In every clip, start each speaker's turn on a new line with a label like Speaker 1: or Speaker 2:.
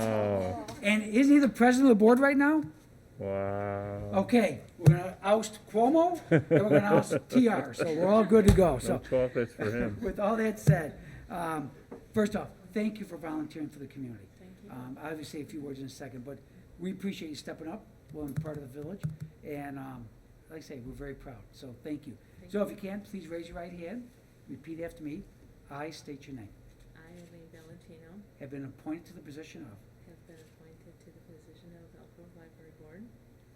Speaker 1: Oh,
Speaker 2: isn't he the president of the board right now?
Speaker 1: Wow.
Speaker 2: Okay, we're gonna oust Cuomo, and we're gonna oust TR, so we're all good to go,
Speaker 1: No
Speaker 2: so.
Speaker 1: chocolates for him.
Speaker 2: With all that said, um, first off, thank you for volunteering for the community. Um, I obviously say a few words in a second, but we appreciate you stepping up, being part of the village, and, um, like I say, we're very proud, so thank you. So if you can, please raise your right hand, repeat after me. I state your name.
Speaker 3: I, Elaine Valentino,
Speaker 2: Have been appointed to the position of,
Speaker 3: have been appointed to the position of Elkhorn Library Board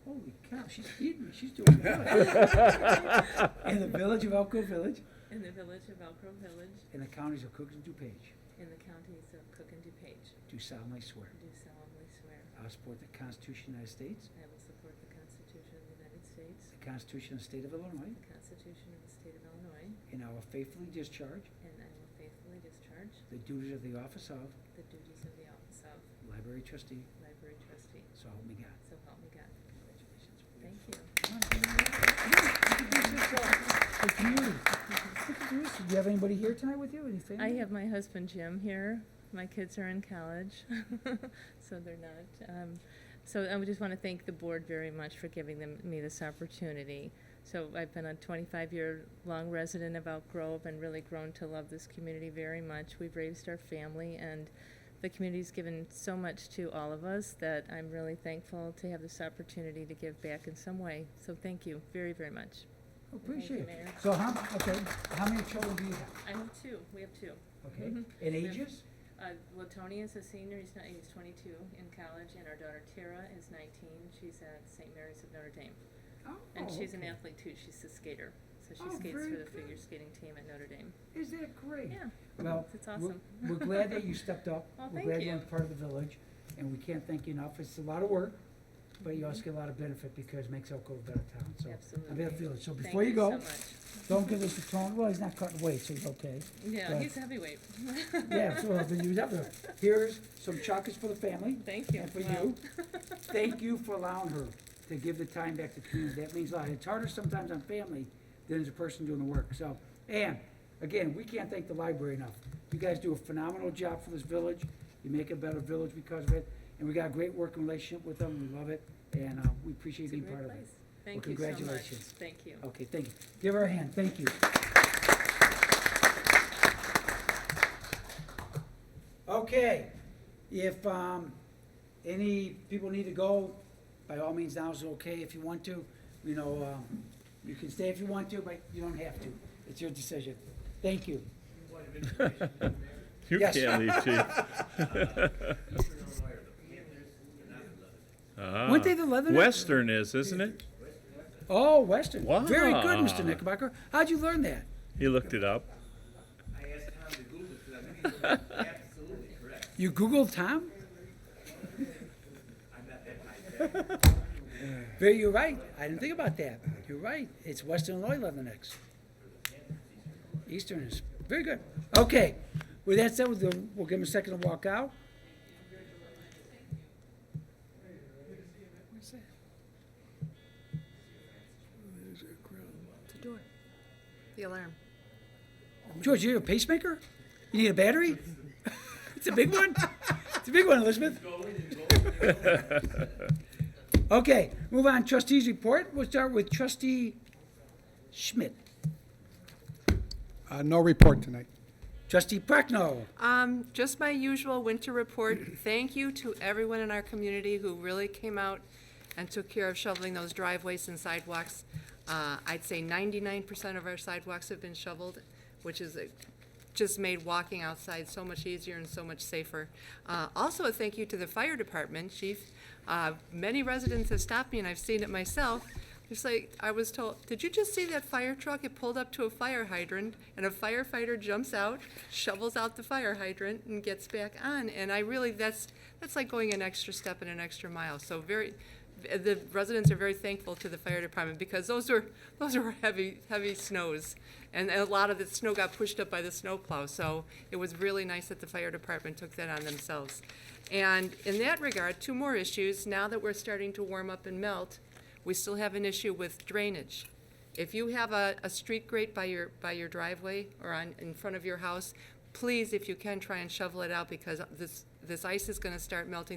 Speaker 2: holy cow, she's feeding me, she's doing good. In the village of Elk Grove Village,
Speaker 3: in the village of Elk Grove Village
Speaker 2: in the counties of Cook and DuPage,
Speaker 3: in the counties of Cook and DuPage.
Speaker 2: do solemnly swear.
Speaker 3: Do solemnly swear
Speaker 2: I will support the Constitution of the United States,
Speaker 3: I will support the Constitution of the United States,
Speaker 2: the Constitution of the State of Illinois,
Speaker 3: the Constitution of the State of Illinois,
Speaker 2: and I will faithfully discharge
Speaker 3: and I will faithfully discharge
Speaker 2: the duties of the office of
Speaker 3: the duties of the office of
Speaker 2: library trustee,
Speaker 3: Library Trustee.
Speaker 2: so help me God.
Speaker 3: So help me God.
Speaker 2: Congratulations.
Speaker 3: Thank you.
Speaker 2: Do you have anybody here tonight with you, any family?
Speaker 3: I have my husband Jim here. My kids are in college, so they're not. Um, so I would just want to thank the board very much for giving them, me this opportunity. So I've been a 25-year-long resident of Elk Grove and really grown to love this community very much. We've raised our family, and the community's given so much to all of us that I'm really thankful to have this opportunity to give back in some way. So thank you very, very much.
Speaker 2: Oh, Appreciate
Speaker 3: Thank you,
Speaker 2: it.
Speaker 3: Mayor.
Speaker 2: So how, okay, how many children do you have?
Speaker 3: I have two. We have two.
Speaker 2: Okay,
Speaker 3: Mhm.
Speaker 2: and
Speaker 3: Yeah.
Speaker 2: ages?
Speaker 3: Uh, well, Tony is a senior. He's not. He's 22 in college, and our daughter Tara is 19. She's at St. Mary's of Notre Dame, and
Speaker 2: Oh,
Speaker 3: she's an
Speaker 2: okay.
Speaker 3: athlete too. She's a skater, so she
Speaker 2: Oh,
Speaker 3: skates
Speaker 2: very
Speaker 3: for the
Speaker 2: good.
Speaker 3: figure skating team at Notre Dame.
Speaker 2: Is that great?
Speaker 3: Yeah,
Speaker 2: Well,
Speaker 3: it's
Speaker 2: we're-
Speaker 3: awesome.
Speaker 2: we're glad that you stepped up.
Speaker 3: Well,
Speaker 2: We're
Speaker 3: thank
Speaker 2: glad you're
Speaker 3: you.
Speaker 2: a part of the village, and we can't thank you enough. It's a lot of work, but you also get a lot of benefit because it makes Elk Grove a better town, so.
Speaker 3: Absolutely.
Speaker 2: I mean, I feel it. So
Speaker 3: Thank
Speaker 2: before you
Speaker 3: so
Speaker 2: go,
Speaker 3: much.
Speaker 2: don't give this to Tony, well, he's not cutting weight, so he's okay.
Speaker 3: Yeah,
Speaker 2: uh,
Speaker 3: he's a heavyweight.
Speaker 2: Yeah, so then you have to, here's some chocolates for the family
Speaker 3: Thank you.
Speaker 2: and for
Speaker 3: Wow.
Speaker 2: you. Thank you for allowing her to give the time back to the community. That means a lot. It's harder sometimes on family than as a person doing the work, so. And, again, we can't thank the library enough. You guys do a phenomenal job for this village. You make a better village because of it, and we got a great working relationship with them. We love it, and, uh, we appreciate
Speaker 3: It's a
Speaker 2: being
Speaker 3: great
Speaker 2: part of it.
Speaker 3: place. Thank you so much.
Speaker 2: congratulations.
Speaker 3: Thank you.
Speaker 2: Okay, thank you. Give her a hand, thank you. Okay, if, um, any people need to go, by all means, now is okay if you want to. You know, um, you can stay if you want to, but you don't have to. It's your decision. Thank you.
Speaker 1: You
Speaker 2: Yes.
Speaker 1: can't leave, chief.
Speaker 2: Weren't they the Leatherneck?
Speaker 1: Western is, isn't it?
Speaker 2: Oh, Western. Very good, Mr.
Speaker 1: Wow.
Speaker 2: Knickerbocker. How'd you learn that?
Speaker 1: He looked it up.
Speaker 4: I asked Tom to Google it, because I think he was absolutely correct.
Speaker 2: You Googled Tom?
Speaker 4: I'm not that high tech.
Speaker 2: Very, you're right. I didn't think about that. You're right. It's Western Illinois Leathernecks. Eastern is, very good. Okay, with that said, we'll, we'll give them a second to walk out. Where's that? There's a crowd.
Speaker 5: The door. The alarm.
Speaker 2: George, you need a pacemaker? You need a battery? It's a big one? It's a big one, Elizabeth. Okay, move on, trustees report. We'll start with trustee Schmidt.
Speaker 6: Uh, No report tonight.
Speaker 2: Trustee Prochnow.
Speaker 5: Um, just my usual winter report. Thank you to everyone in our community who really came out and took care of shoveling those driveways and sidewalks. Uh, I'd say ninety-nine percent of our sidewalks have been shoveled, which is, uh, just made walking outside so much easier and so much safer. Uh, also, a thank you to the fire department, chief. Uh, many residents have stopped me, and I've seen it myself, It's like, I was told, did you just see that fire truck? It pulled up to a fire hydrant, and a firefighter jumps out, shovels out the fire hydrant, and gets back on. And I really, that's, that's like going an extra step and an extra mile. So very, the residents are very thankful to the fire department, because those were, those were heavy, heavy snows. And a lot of the snow got pushed up by the snowplow, so it was really nice that the fire department took that on themselves. And in that regard, two more issues, now that we're starting to warm up and melt, we still have an issue with drainage. If you have a, a street grate by your, by your driveway or on, in front of your house, please, if you can, try and shovel it out because this, this ice is gonna start melting